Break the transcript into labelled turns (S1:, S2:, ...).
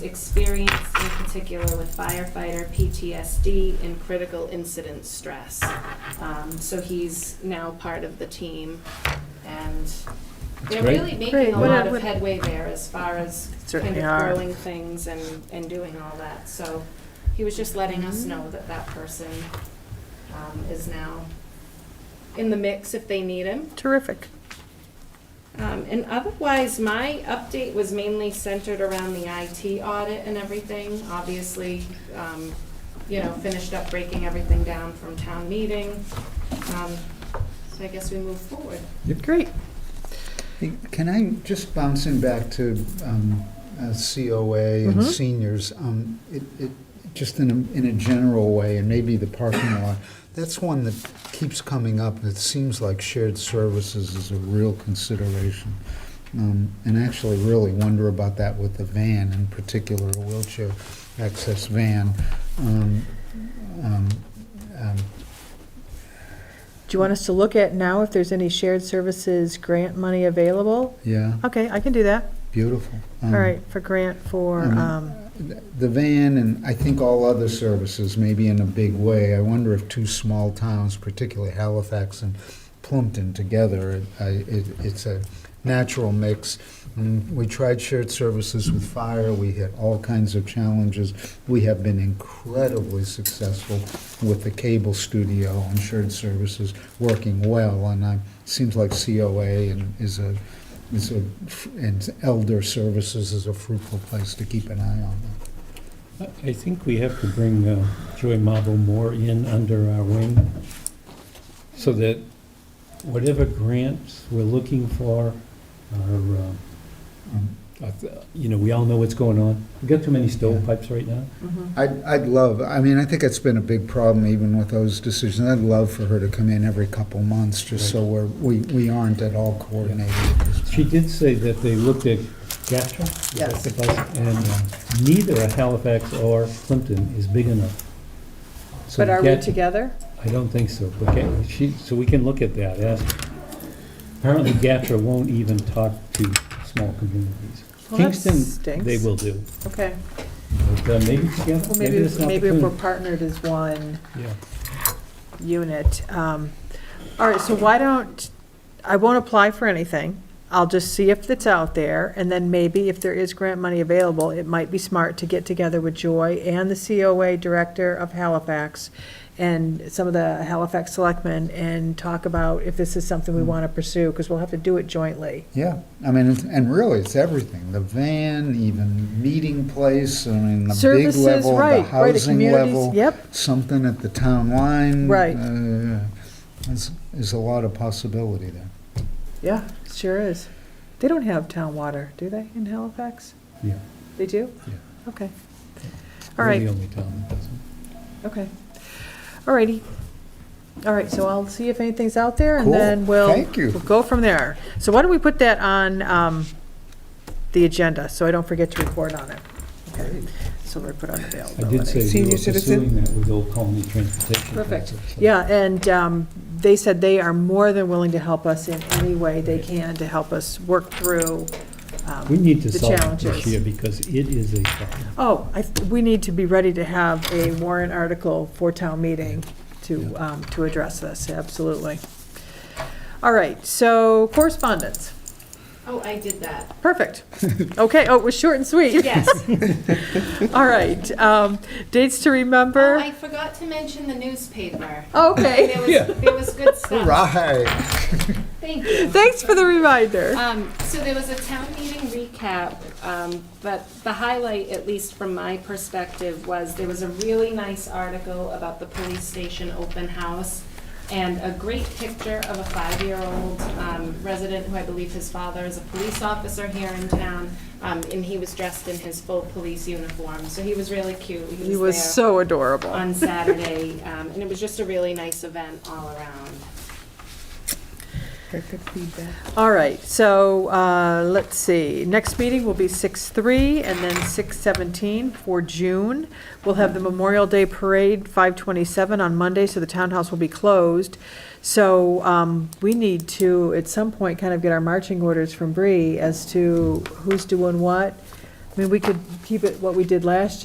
S1: experience in particular with firefighter PTSD and critical incident stress. Um, So he's now part of the team, and they're
S2: Great.
S1: really making
S3: Great.
S1: a
S3: What
S1: lot
S3: a-
S1: of
S3: what-
S1: headway there as far as kind
S3: Certainly
S1: of
S3: are.
S1: growing things and, and doing all that. So he was just letting
S3: Mm-hmm.
S1: us know that that person um, is now in the mix if they need him.
S3: Terrific.
S1: Um, and otherwise, my update was mainly centered around the IT audit and everything. Obviously, um, you know, finished up breaking everything down from town meeting. Um, so I guess we move forward.
S3: Great.
S4: Hey, Can I, just bouncing back to um, uh, COA and
S3: Mhm.
S4: seniors, um, it, it, just in a, in a general way, and maybe the parking lot, that's one that keeps coming up, and it seems like shared services is a real consideration. Um, And actually really wonder about that with the van, in particular, a wheelchair access van. Um, um, um,
S3: Do you want us to look at now if there's any shared services grant money available?
S4: Yeah,
S3: Okay, I can do that.
S4: beautiful.
S3: All
S2: Mm-hmm.
S4: Um,
S3: right, for grant for,
S4: Mhm.
S3: um,
S4: the van and I think all other services, maybe in a big way. I wonder if two small towns, particularly Halifax and Plumpton together, I- it, it's a natural mix. And we tried shared services with fire. We hit all kinds of challenges. We have been incredibly successful with the cable studio and shared services working well. And it seems like COA and is a is a, and elder services is a fruitful place to keep an eye on.
S2: I I think we have to bring uh, Joy Mabo Moore in under our wing so that whatever grants we're looking for are, uh,
S4: Um,
S2: I th- you know, we all know what's going on. We've got too many stovepipes right now.
S3: Mm-hmm.
S4: I'd, I'd love, I mean, I think it's been a big problem even with those decisions. I'd love for her to come in every couple months, just so we're, we, we aren't at all coordinated. at this
S2: She
S4: point.
S2: did say that they looked at GATRA. is that the bus? And uh, neither Halifax or Clinton is big enough. So
S3: but are we
S2: GAT-
S3: together?
S2: I don't think so. But Ga- she, so we can look at that. ask- Apparently GATRA won't even talk to small communities.
S3: Well, that
S2: Kingston,
S3: stinks.
S2: they will do.
S3: Okay,
S2: But uh, maybe together,
S3: well,
S2: maybe
S3: maybe,
S2: that's an
S3: maybe if we're
S2: opportunity.
S3: partnered as one
S2: Yeah.
S3: unit. Um, All right, so why don't, I won't apply for anything. I'll just see if it's out there, and then maybe if there is grant money available, it might be smart to get together with Joy and the COA Director of Halifax and some of the Halifax selectmen and talk about if this is something
S4: Mm-hmm.
S3: we want to pursue, because we'll have to do it jointly.
S4: Yeah, I mean, it's- and really, it's everything, the van, even meeting place, I mean, the big
S3: Services,
S4: level, the
S3: right, right, a
S4: housing
S3: communities,
S4: level,
S3: yep,
S4: something at the town line.
S3: Right.
S4: uh, There's, there's a lot of possibility there.
S3: yeah, sure is. They don't have town water, do they, in Halifax?
S2: Yeah.
S3: They do?
S2: Yeah.
S3: Okay. All
S2: We're
S3: right.
S2: the only town that doesn't.
S3: Okay. All righty. All right, so I'll see if anything's out there, and
S4: Cool.
S3: then we'll.
S4: Thank you.
S3: We'll go from there. So why don't we put that on um, the agenda, so I don't forget to report on it? Okay, so we're put on
S2: I did
S3: availability.
S2: say we were
S5: Senior citizen?
S2: pursuing that with Old Colony Transportation.
S3: Perfect.
S2: Council, so-
S3: Yeah, and um, they said they are more than willing to help us in any way they can to help us work through. um,
S2: We need to
S3: The
S2: solve it this
S3: challenges.
S2: year because it is a problem.
S3: Oh, I, th- we need to be ready to have a warrant article for town meeting to, um, to address this, absolutely. All right, so correspondence,
S1: Oh, I did that.
S3: perfect. Okay, oh, it was short and sweet,
S1: Yes.
S3: all right. um, Dates to
S1: Oh,
S3: remember,
S1: I forgot to mention the newspaper.
S3: Oh, okay,
S1: There was, there was good stuff.
S4: Right.
S1: Thank you.
S3: thanks for the reminder.
S1: Um, so there was a town meeting recap, um, but the highlight, at least from my perspective, was there was a really nice article about the police station open house and a great picture of a five-year-old, um, resident who I believe his father is a police officer here in town. Um, and he was dressed in his full police uniform, so he was really cute.
S3: He was
S1: there
S3: so adorable.
S1: On Saturday, um, and it was just a really nice event all around.
S5: Very good feedback.
S3: All right, so, uh, let's see, next meeting will be six-three and then six-seventeen for June. We'll have the Memorial Day Parade, five-twenty-seven on Monday, so the townhouse will be closed. So, um, we need to, at some point, kind of get our marching orders from Bree as to who's doing what. I mean, we could keep it what we did last year.